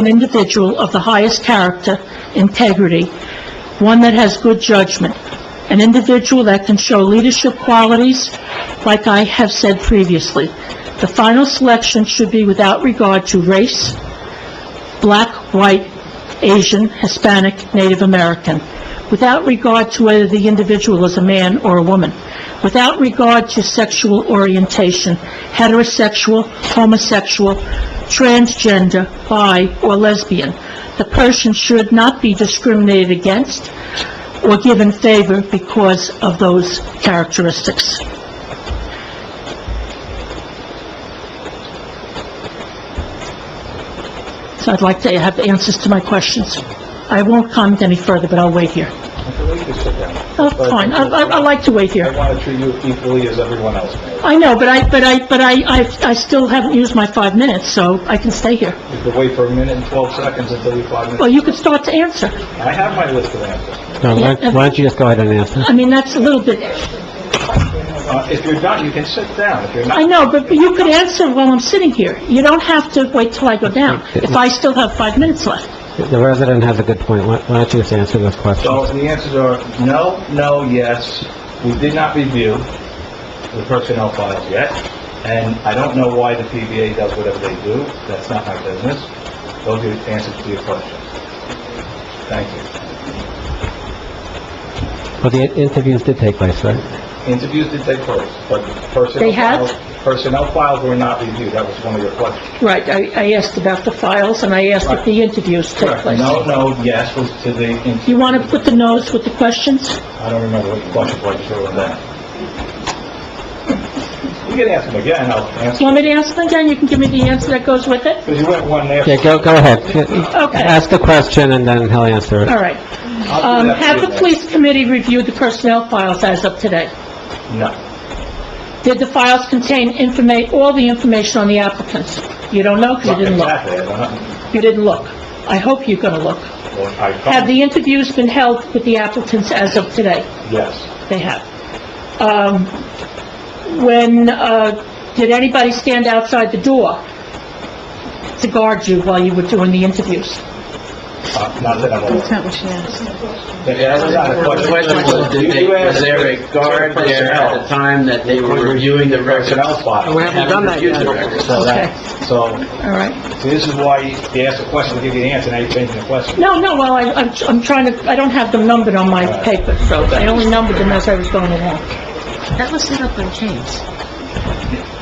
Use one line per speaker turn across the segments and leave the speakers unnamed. an individual of the highest character, integrity, one that has good judgment, an individual that can show leadership qualities, like I have said previously. The final selection should be without regard to race, black, white, Asian, Hispanic, Native American, without regard to whether the individual is a man or a woman, without regard to sexual orientation, heterosexual, homosexual, transgender, bi, or lesbian. The person should not be discriminated against or given favor because of those characteristics. So I'd like to have answers to my questions. I won't comment any further, but I'll wait here. Oh, fine, I, I I like to wait
I
here.
want to treat you equally as everyone else, Mayor.
I know, but I, but I, but I, I I still haven't used my five minutes, so I can stay here.
You could wait for a minute and 12 seconds until you five
Well,
minutes.
you can start to answer.
I have my list of answers.
No, why why don't you just go ahead and answer?
I mean, that's a little bit,
Uh, If you're done, you can sit down. If you're
I
not,
know, but you could answer while I'm sitting here. You don't have to wait till I go down, if I still have five minutes left.
The resident has a good point. Why why don't you just answer those
so
questions?
the answers are no, no, yes. We did not review the personnel files yet, and I don't know why the PBA does whatever they do. That's not my business. Those are the answers to your questions. Thank you.
Well, the interviews did take place, right?
Interviews did take place, but personnel...
They had?
files- Personnel files were not reviewed. That was one of your questions.
Right, I, I asked about the files, and I asked if the interviews took
Correct.
place.
No, no, yes was to the...
You want to put the no's with the questions?
I don't remember what the question was, sure on that. You can ask them again, I'll
Do you
answer,
want me to answer them again? You can give me the answer that goes with it?
because you went one there.
Yeah, go, go ahead.
Okay.
Ask the question and then he'll answer
All
it.
right.
I'll
Um,
do that
have
for
the
you.
police committee review the personnel files as of today?
No,
Did the files contain informa, all the information on the applicants? You don't know, because you
not
didn't look.
exactly, I don't know.
You didn't look. I hope you're gonna look.
Well, I
Have
found,
the interviews been held with the applicants as of today?
yes,
They have. Um, when, uh, did anybody stand outside the door to guard you while you were doing the interviews?
Uh, not that I'm aware.
not what she asked.
That was not a
The question was, did they,
You asked
was there a guard there at the
personnel.
time that they were reviewing the records?
Personnel file.
We haven't done that yet.
So that, so,
All right.
see, this is why you ask a question, we give you the answer, now you're changing the question.
No, no, well, I, I'm, I'm trying to, I don't have them numbered on my paper, so I only numbered them as I was going along.
That was set up by James.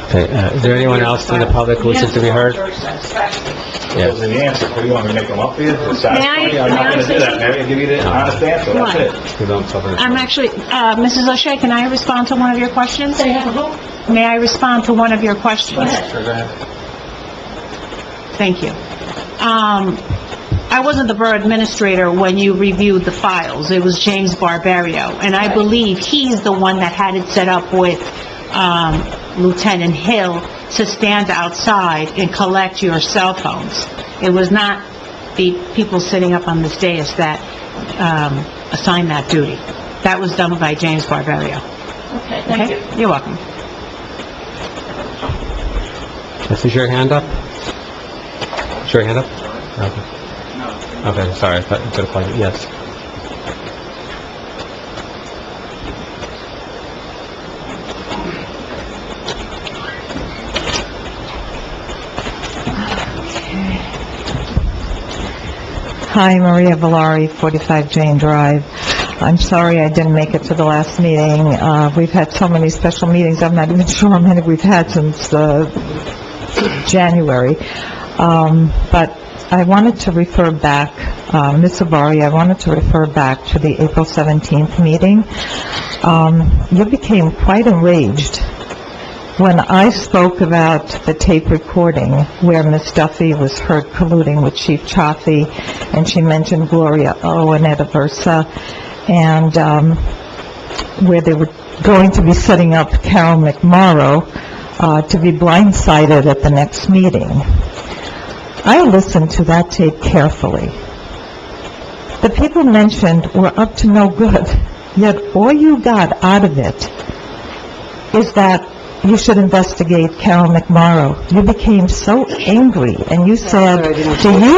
Okay, uh, is there anyone else in the public who wishes to be heard?
Those are the answers, what do you want me to make them up for you? Satisfactory? I'm
may
not
I
gonna do
say
that, Mary, I'll give you the honest answer, that's
Why?
it.
You don't cover it.
I'm actually, uh, Mrs. O'Shea, can I respond to one of your questions?
They have a vote?
May I respond to one of your questions? Thank you. Um, I wasn't the borough administrator when you reviewed the files. It was James Barbario, and I believe he's the one that had it set up with, um, Lieutenant Hill to stand outside and collect your cell phones. It was not the people sitting up on this dais that, um, assigned that duty. That was done by James Barbario.
Okay,
Okay? You're welcome.
This is your hand up? Is your hand up? Okay. Okay, sorry, I thought you could have called it, yes.
Hi, Maria Valari, 45 Jane Drive. I'm sorry I didn't make it to the last meeting. Uh, We've had so many special meetings, I'm not even sure how many we've had since uh, January. Um, But I wanted to refer back, uh, Ms. Savari, I wanted to refer back to the April 17th meeting. Um, You became quite enraged when I spoke about the tape recording where Miss Duffy was heard colluding with Chief Chaffee, and she mentioned Gloria O. and Etta Versa, and um, where they were going to be setting up Carol McMorrow uh, to be blindsided at the next meeting. I listened to that tape carefully. The people mentioned were up to no good, yet all you got out of it is that you should investigate Carol McMorrow. You became so angry, and you said, "Do you